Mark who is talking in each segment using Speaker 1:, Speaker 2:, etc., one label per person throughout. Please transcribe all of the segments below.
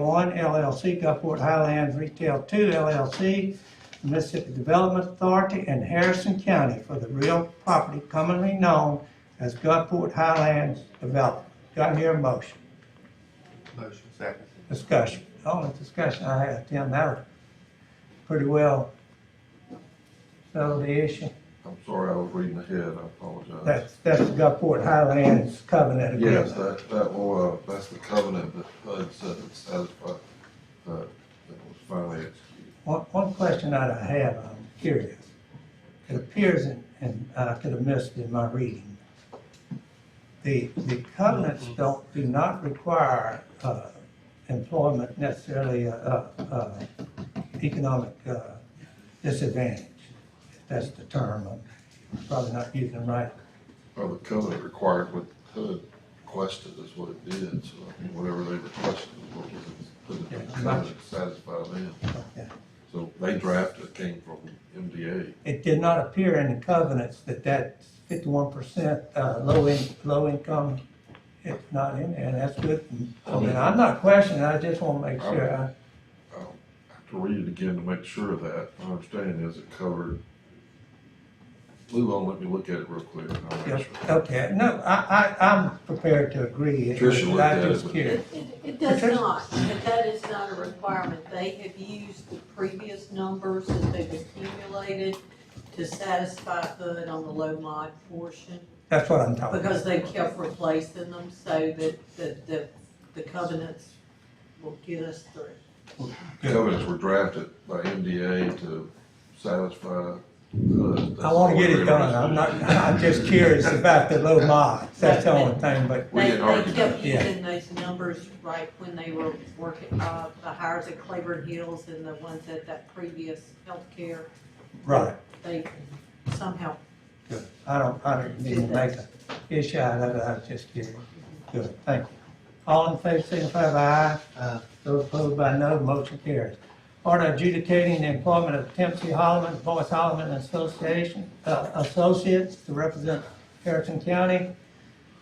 Speaker 1: One LLC, Gulfport Highlands Retail Two LLC, Mississippi Development Authority, and Harrison County for the real property commonly known as Gulfport Highlands Development. Do I hear a motion?
Speaker 2: Motion. Second.
Speaker 1: Discussion. The Only discussion I had, Tim, that was pretty well settled the issue.
Speaker 3: I'm sorry, I was reading ahead, I apologize.
Speaker 1: That's, that's the Gulfport Highlands covenant
Speaker 3: Yes,
Speaker 1: agreement.
Speaker 3: that, that will, uh, that's the covenant that HUD said it satisfied, that, that was finally executed.
Speaker 1: One, one question that I have, I'm curious. It appears, in- and I could have missed in my reading, the, the covenants don't, do not require, uh, employment necessarily, uh, uh, economic, uh, disadvantage. If That's the term, I'm probably not using it right.
Speaker 3: Well, the covenant required what HUD requested is what it did, so I mean, whatever they requested is what was, put in the
Speaker 1: Yeah.
Speaker 3: covenant satisfied them.
Speaker 1: Okay.
Speaker 3: So they drafted, it came from MDA.
Speaker 1: It did not appear in the covenants that that fifty-one percent, uh, low in, low income, it's not in there, and that's good. I mean, I'm not questioning, I just wanna make sure, I-
Speaker 3: I'll have to read it again to make sure of that. My understanding is it covered. Lou, I'll let me look at it real quick. and I'll
Speaker 1: yeah,
Speaker 3: make sure.
Speaker 1: okay, no, I, I, I'm prepared to agree. It was-
Speaker 3: Tricia looked at
Speaker 1: I
Speaker 3: it,
Speaker 1: just
Speaker 3: but-
Speaker 1: curious.
Speaker 4: It, it- it does
Speaker 1: Patricia?
Speaker 4: not, but that is not a requirement. They have used the previous numbers that they've accumulated to satisfy HUD on the low mod portion,
Speaker 1: That's what I'm talking about.
Speaker 4: because they kept replacing them so that, that, the the covenants will get us through.
Speaker 3: Covenants were drafted by MDA to satisfy. uh,
Speaker 1: I wanna get it done,
Speaker 3: that's all
Speaker 1: I'm
Speaker 3: we
Speaker 1: not,
Speaker 3: really
Speaker 1: I'm just curious about the low mods, that's the only thing, but,
Speaker 3: We
Speaker 4: They,
Speaker 3: didn't
Speaker 4: they
Speaker 3: argue
Speaker 4: kept
Speaker 3: that.
Speaker 1: Yeah.
Speaker 4: using those numbers right when they were working, uh, the hires at Claiborne Hills and the ones at that previous healthcare.
Speaker 1: right.
Speaker 4: They somehow
Speaker 1: Good. I don't, I don't need to make an issue out of it, I was just curious. Good, thank you. All in favor, signify by aye. Uh,
Speaker 2: Aye.
Speaker 1: Those opposed by no, motion carries. Order adjudicating the employment of Dempsey Holloman, Boyce Holloman Association, uh, Associates to represent Harrison County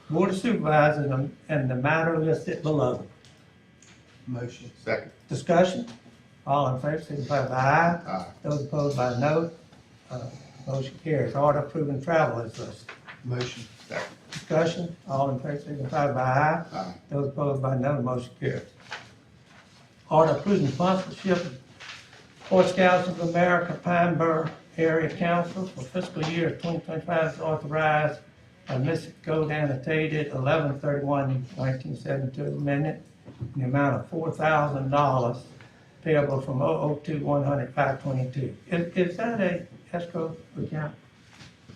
Speaker 1: Board of Supervisors and- and the matter listed below.
Speaker 2: Motion. Second.
Speaker 1: Discussion? All in favor, signify by aye.
Speaker 2: Aye.
Speaker 1: Those opposed by no, uh, motion carries. Order approving travel is listed.
Speaker 2: Motion. Second.
Speaker 1: Discussion, all in favor, signify by aye.
Speaker 2: Aye.
Speaker 1: Those opposed by no, motion carries. Order approving sponsorship of Boy Scouts of America Pine Bur Area Council for fiscal year twenty twenty-five is authorized by Mississippi Code annotated 1972 amendment in the amount of four thousand dollars payable from 002-100-522. Is, is that a escrow account?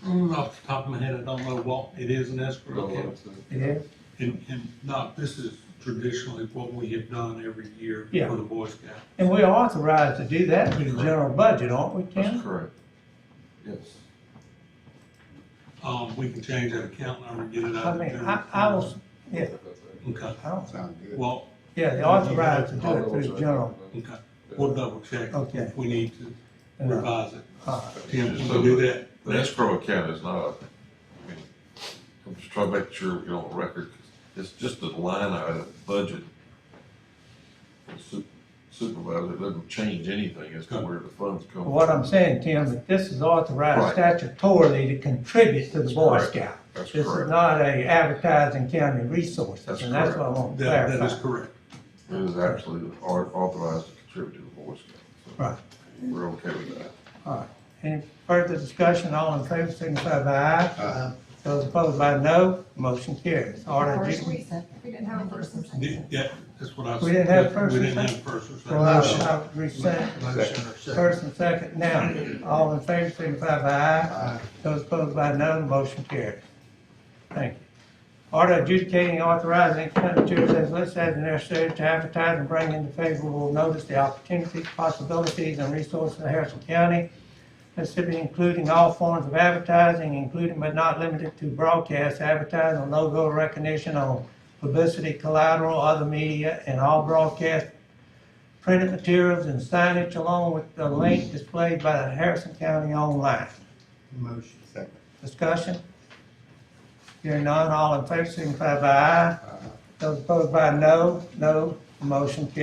Speaker 5: Mm, Off the top of my head, I don't know what it is an escrow
Speaker 3: Go
Speaker 5: account.
Speaker 3: on to-
Speaker 1: It is?
Speaker 5: And, and not, this is traditionally what we have done every year
Speaker 1: Yeah.
Speaker 5: for the Boy Scout.
Speaker 1: And we're authorized to do that through the general budget, aren't we,
Speaker 3: That's
Speaker 1: Ken?
Speaker 3: correct. Yes.
Speaker 5: Um, we can change that account number, and get it
Speaker 1: I
Speaker 5: out. of
Speaker 1: mean,
Speaker 5: general
Speaker 1: I, I was, yeah,
Speaker 5: fund. Okay,
Speaker 1: I don't,
Speaker 2: Sound good.
Speaker 5: well,
Speaker 1: yeah, they're authorized to do it through the general.
Speaker 5: okay, we'll double check
Speaker 1: Okay.
Speaker 5: if we need to
Speaker 1: and, uh,
Speaker 5: revise it.
Speaker 1: uh,
Speaker 5: Tim, can
Speaker 3: So-
Speaker 5: we do that?
Speaker 3: The escrow account is not, I mean, I'm just trying to make sure we get on the record, 'cause it's just a line item budget. The su- Supervisor, it doesn't change anything as to where the funds come. from.
Speaker 1: What I'm saying, Tim, that this is authorized
Speaker 3: Right.
Speaker 1: statutorily to contribute to the Boy
Speaker 3: correct.
Speaker 1: Scout.
Speaker 3: That's
Speaker 1: This is
Speaker 3: correct.
Speaker 1: not a advertising county resource,
Speaker 3: That's
Speaker 1: and that's what I
Speaker 3: correct.
Speaker 1: want to
Speaker 5: That, that is
Speaker 1: clarify.
Speaker 5: correct.
Speaker 3: It is absolutely au- authorized to contribute to the Boy Scouts. so
Speaker 1: Right.
Speaker 3: We're okay with that.
Speaker 1: All right. Any further discussion, all in favor, signify by aye. Uh,
Speaker 2: Aye.
Speaker 1: Those opposed by no, motion carries. Order
Speaker 6: First
Speaker 1: adjudicating-
Speaker 6: reason. We didn't have a first and second.
Speaker 5: Th- Yeah, that's what I was.
Speaker 1: We didn't have first
Speaker 5: We
Speaker 1: and
Speaker 5: didn't
Speaker 1: second?
Speaker 5: have first or
Speaker 1: Well,
Speaker 5: second.
Speaker 1: I- I resent-
Speaker 2: Motion or second.
Speaker 1: First and second now. All in favor, signify by aye. Those opposed by no, motion carries. Thank you. Order adjudicating authorizing expenditures as listed as necessary to advertise and bring into favorable notice the opportunities, possibilities, and resources of Harrison County, Mississippi, including all forms of advertising, including but not limited to broadcast advertising, logo recognition on publicity, collateral, other media, and all broadcast printed materials and signage along with the link displayed by the Harrison County online.
Speaker 2: Motion. Second.
Speaker 1: Discussion? Hearing none, all in favor, signify by aye. Those opposed by no, no, motion carries.